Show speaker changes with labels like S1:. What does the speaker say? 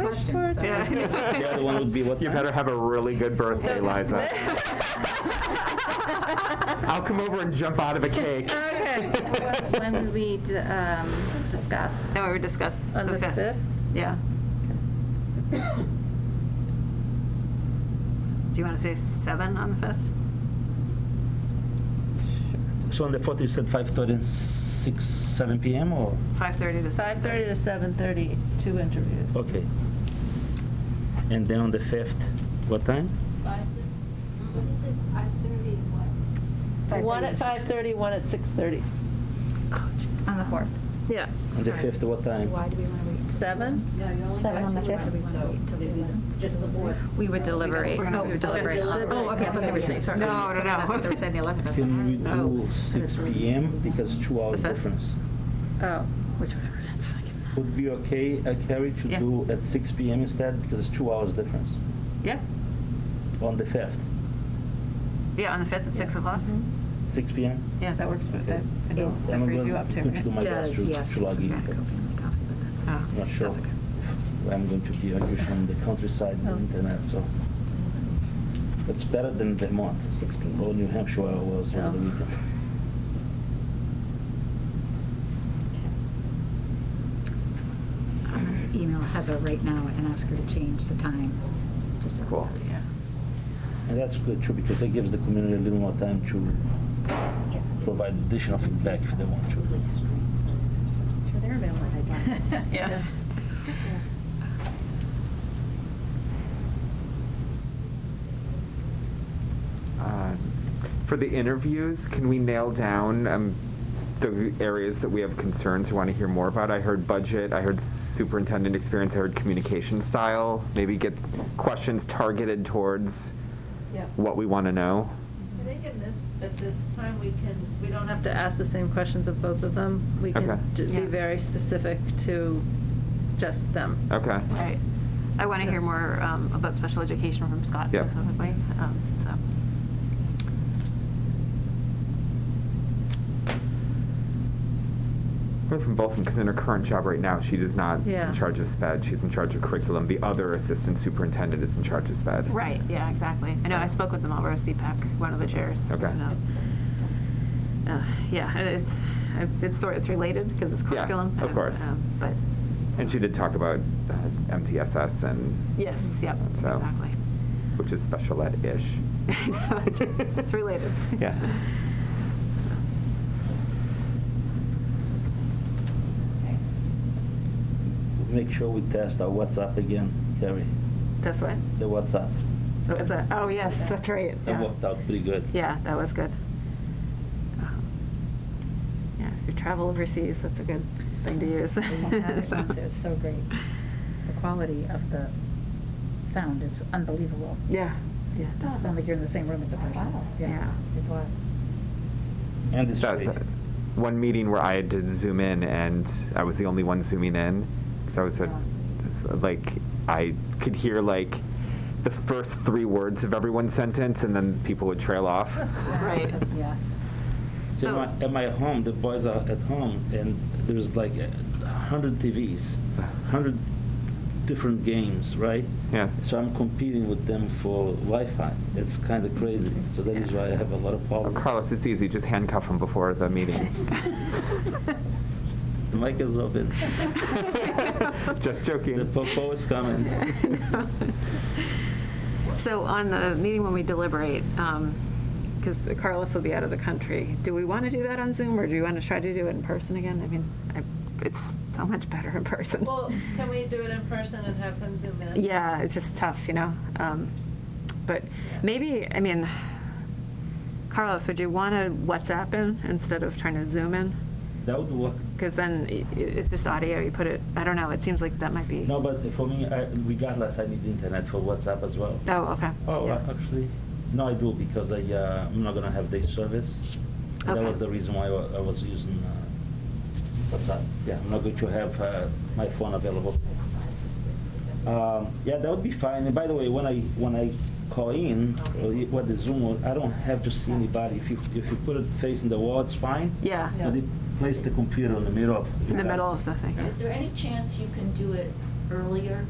S1: question. so-
S2: The other one would be what?
S3: You better have a really good birthday, Liza. I'll come over and jump out of a cake.
S1: When would we d- um, discuss?
S4: No, we would discuss the
S5: On the
S4: 5th.
S5: fifth?
S4: Yeah. Do you want to say 7 on the 5th?
S2: So on the 4th, you said 5:30 and 6, 7 PM or?
S4: 5:30 to
S5: 5:30 to 7:30, two interviews.
S2: Okay. And then on the 5th, what time?
S6: Why is it, what is it, five thirty and what?
S5: One at 5:30, one at 6:30.
S1: On the 4th.
S5: Yeah.
S2: On the 5th, what time?
S6: Why do we want to wait?
S5: Seven?
S6: No, you only
S1: Seven on the fifth?
S6: Just the board.
S1: We would deliberate.
S4: We're not-
S1: Oh, we would deliberate. on- Oh, okay, I thought they were saying, sorry.
S4: No, no,
S1: Sorry, I
S4: no.
S1: thought They were saying the 11th.
S2: Can we do
S1: Oh.
S2: 6 PM because two hours
S4: The 5th?
S2: difference?
S5: Oh.
S4: Which whatever it is.
S2: Would be okay, uh, Carrie, to
S4: Yeah.
S2: do at 6 PM instead because it's two hours difference
S4: Yeah,
S2: on the 5th,
S4: yeah, on the 5th at 6 o'clock?
S2: 6 PM?
S4: Yeah, that works, but that, I know, that
S2: I'm
S4: frees
S2: going
S4: you up
S2: to
S4: too.
S2: going to do
S4: right?
S2: my best
S1: Does,
S2: to-
S1: yes.
S2: to log in.
S4: Oh,
S2: Not Ah, sure.
S4: that's okay.
S2: I'm going to be usually in the countryside
S5: Oh.
S2: on the internet, so uh, it's better than Vermont.
S1: 6 p.m.
S2: Or New Hampshire where I was over the
S5: Oh.
S2: weekend.
S1: I'm gonna Email Heather right now and ask her to change the time. Just so-
S3: Cool.
S4: Yeah.
S2: And that's good too, because it gives the community a little more time to provide additional feedback if they want to.
S4: Yeah.
S3: Um, For the interviews, can we nail down um, the areas that we have concerns we want to hear more about? I heard budget, I heard superintendent experience, I heard communication style. Maybe get questions targeted towards
S5: Yeah.
S3: what we want to know.
S5: I think in this, at this time, we can, we don't have to ask the same questions of both of them. We can
S3: Okay.
S5: ju- be
S4: Yeah.
S5: very specific to just them.
S3: Okay.
S4: Right. I want to hear more um, about special education from Scott
S3: Yep.
S4: specifically, um, so.
S3: Heard from both of them, because in her current job right now, she is not
S5: Yeah.
S3: in charge of SPED. She's in charge of curriculum. The other assistant superintendent is in charge of SPED.
S4: Right, yeah, exactly. I know, I spoke with the Marlboro CPAC, E one of the chairs.
S3: Okay.
S4: and, um, uh, Yeah, and it's, it's sort, it's related because it's
S3: Yeah,
S4: curriculum.
S3: of
S4: um,
S3: course.
S4: um, But,
S3: And she did talk about uh, MTSS and
S4: yes, yep,
S3: So-
S4: exactly.
S3: which is special ed ish.
S4: I know, it's- It's related.
S3: Yeah.
S2: Make sure we test our WhatsApp again, Carrie,
S4: That's what,
S2: the WhatsApp.
S4: what's that? Oh, yes, that's right.
S2: That
S4: yeah.
S2: worked out pretty good.
S4: Yeah, that was good. Um, Yeah, if you travel overseas, that's a good thing to use. So-
S1: It's so great. The quality of the sound is unbelievable.
S4: Yeah, yeah.
S1: It sounds like you're in the same room as the person.
S4: Yeah.
S1: It's wild.
S2: And it's
S3: That,
S2: free.
S3: that one meeting where I had to zoom in and I was the only one zooming in because I was a, like I could hear like the first three words of everyone's sentence and then people would trail off.
S4: Right.
S1: Yes.
S2: So
S4: So-
S2: my, at my home, the boys are at home, and there's like a hundred TVs, hundred different games, right?
S3: Yeah.
S2: So I'm competing with them for Wi-Fi. It's kind of crazy. So that is why I have a lot of
S3: Oh,
S2: problems.
S3: Carlos, it's easy. Just handcuff him before the meeting.
S2: The mic is open.
S3: Just
S2: The
S3: joking.
S2: popo is coming.
S4: So on the meeting when we deliberate, because Carlos will be out of the country, do we want to do that on Zoom or do you want to try to do it in person again? I mean, I- it's so much better in person.
S5: Well, can we do it in person and have them zoom in?
S4: Yeah, it's just tough, you know? Um, But maybe, I mean, Carlos, would you want to WhatsApp in instead of trying to Zoom in?
S2: That would work.
S4: Because then i- i- it's just audio, you put it, I don't know, it seems like that might be.
S2: No, but for me, I, regardless, I need internet for WhatsApp as well.
S4: Oh, okay.
S2: Oh,
S4: Yeah.
S2: uh, actually, no, I do because I uh, I'm not gonna have day service. That
S4: Okay.
S2: was the reason why I wa- I was using uh, WhatsApp. Yeah, I'm not going to have uh, my phone available. Um, yeah, that would be fine. And by the way, when I when I call in or y- what the Zoom, was, I don't have to see anybody. If you if you put it facing the wall, it's fine.
S4: Yeah,
S2: But they place the computer in the middle of
S4: in the middle of the thing.
S6: Is there any chance you can do it earlier